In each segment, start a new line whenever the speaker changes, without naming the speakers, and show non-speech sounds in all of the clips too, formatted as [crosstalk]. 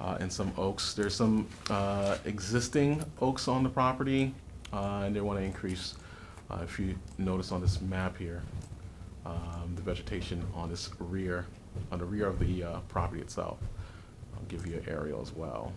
uh, and some oaks. There's some uh, existing oaks on the property, uh, and they want to increase, uh, if you notice on this map here, um, the vegetation on this rear, on the rear of the uh, property itself. I'll give you an aerial as well.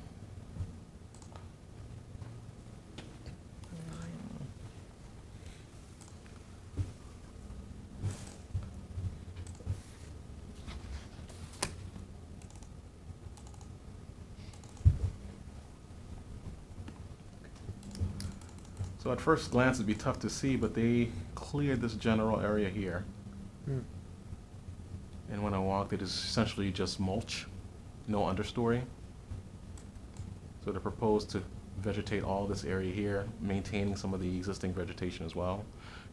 So at first glance, it'd be tough to see, but they cleared this general area here.
Hmm.
And when I walked, it is essentially just mulch, no understory. So they're proposed to vegetate all this area here, maintaining some of the existing vegetation as well.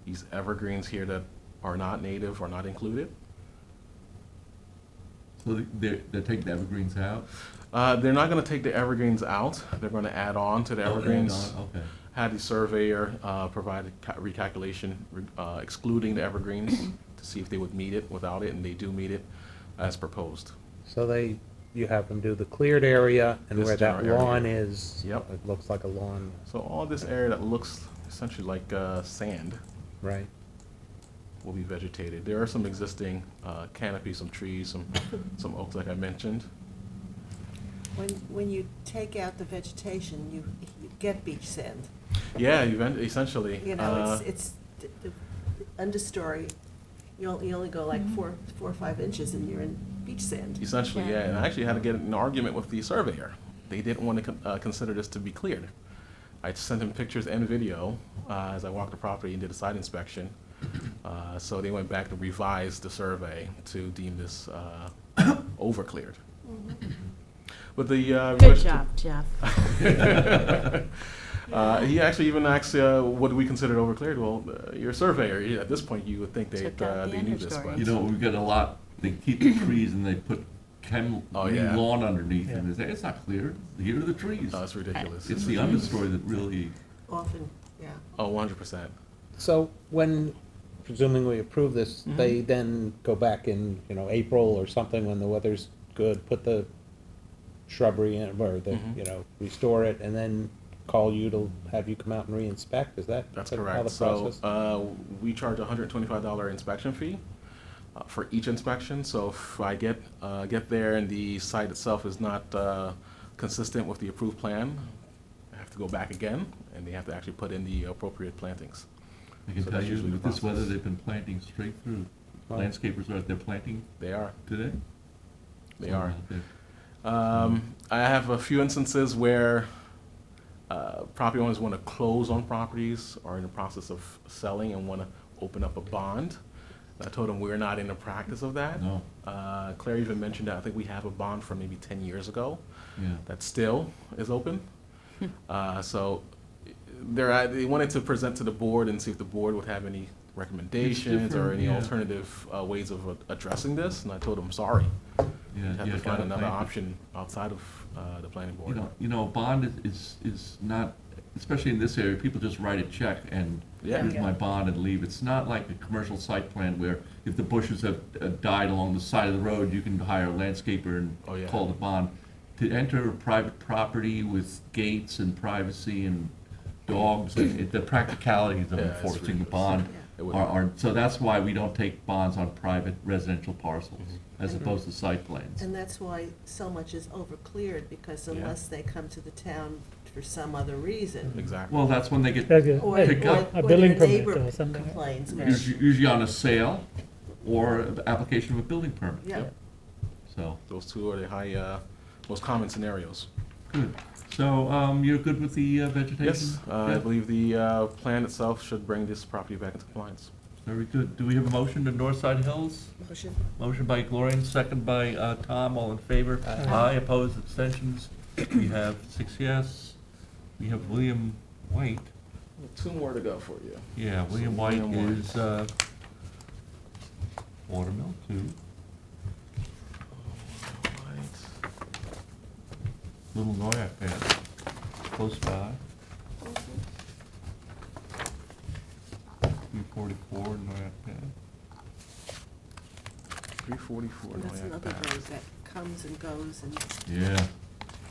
These evergreens here that are not native are not included.
So they- they're, they're taking the evergreens out?
Uh, they're not gonna take the evergreens out, they're gonna add on to the
Oh, and
evergreens.
on- Okay.
Had the surveyor, uh, provide a ca- recalculation, re- uh, excluding the evergreens to see if they would meet it without it, and they do meet it as proposed.
So they, you have them do the cleared area and
This
where that
general area.
lawn is.
Yep.
It looks like a lawn,
So all this area that looks essentially like uh, sand
right?
will be vegetated. There are some existing uh, canopies, some trees, some, some oaks, like I mentioned.
When, when you take out the vegetation, you, you get beach sand.
Yeah, even- essentially.
You know,
uh,
it's, it's the the understory, you only, you only go like four, four or five inches and you're in beach sand.
Essentially,
Yeah.
yeah, and I actually had to get in an argument with the surveyor. They didn't want to con- uh, consider this to be cleared. I sent him pictures and video uh, as I walked the property and did a site inspection. Uh, So they went back to revise the survey to deem this uh, over cleared.
Mm-hmm.
But the. uh,
Good
rest-
job, Jeff.
[laughs] Uh, He actually even asked, uh, what do we consider over cleared? Well, uh, you're a surveyor, You- at this point, you would think they,
Took out
uh,
the
they knew this,
understory.
but.
You know, we've got a lot, they keep the trees and they put chem,
Oh,
green
yeah.
lawn underneath and
Yeah.
they say, it's not clear, here are the trees.
No, it's ridiculous.
It's the understory that really,
Often, yeah.
Oh, 100%.
So when, presuming we approve this,
Mm-hmm.
they then go back in, you know, April or something when the weather's good, put the shrubbery in, or the,
Mhm.
you know, restore it, and then call you to have you come out and re-inspect, is that?
That's
sort of how
correct.
the
So,
process-
uh, we charge a hundred twenty-five dollar inspection fee uh, for each inspection. So if I get, uh, get there and the site itself is not, uh, consistent with the approved plan, I have to go back again and they have to actually put in the appropriate plantings.
I can
So
tell
that's
you,
usually the
with this weather,
process.
they've been planting straight through.
Wow.
Landscapers are out there planting
They are,
today?
they
Somewhere
are.
out there.
Um, I have a few instances where uh, property owners want to close on properties or in the process of selling and want to open up a bond. I told them we're not in the practice of that.
No,
Uh, Claire even mentioned that I think we have a bond from maybe 10 years ago
yeah.
that still is open. Uh, So eh, they're, at- they wanted to present to the board and see if the board would have any recommendations or
different,
any
yeah.
alternative uh, ways of a- addressing this. And I told them, sorry,
Yeah,
you have
yeah,
to find
gotta
another
plant it.
option outside of uh, the planning
You
board.
know, you know, a bond is- is, is not, especially in this area, people just write a check and
Yeah.
here's my bond and leave. It's not like a commercial site plan where if the bushes have uh, died along the side of the road, you can hire a landscaper
Oh, yeah.
and call the bond. To enter a private property with gates and privacy and dogs, and it- the practicalities of
Yeah, it's
enforcing a
ridiculous.
bond
It
are,
would-
are, so that's why we don't take bonds on private residential parcels
Mm-hmm.
as opposed to site plans.
And that's why so much is over cleared because
Yeah.
unless they come to the town for some other reason.
Exactly.
Well, that's when they get
Like a-
Or, or
like
Pick up.
or
A
their
building permit
neighbor
or something.
complains, which,
Usu- usually on a sale or a- application of a building permit,
yeah.
Yep.
so,
Those two are the high, uh, most common scenarios.
good. So, um, you're good with the uh, vegetation?
Yes, uh, I
Yeah,
believe the uh, plan itself should bring this property back into compliance.
Very good. Do we have a motion to Northside Hills?
Motion?
Motion by Gloria, second by, uh, Tom, all in favor? Aye, opposed, abstentions? We have six yes. We have William White.
Two more to go for you.
Yeah,
So
William White
William White.
is, uh, Watermill too. Little Noyak there, close by. Three forty-four, Noyak Ave.
Three forty-four
And that's
Noyak
another
Ave.
road that comes and goes and
Yeah,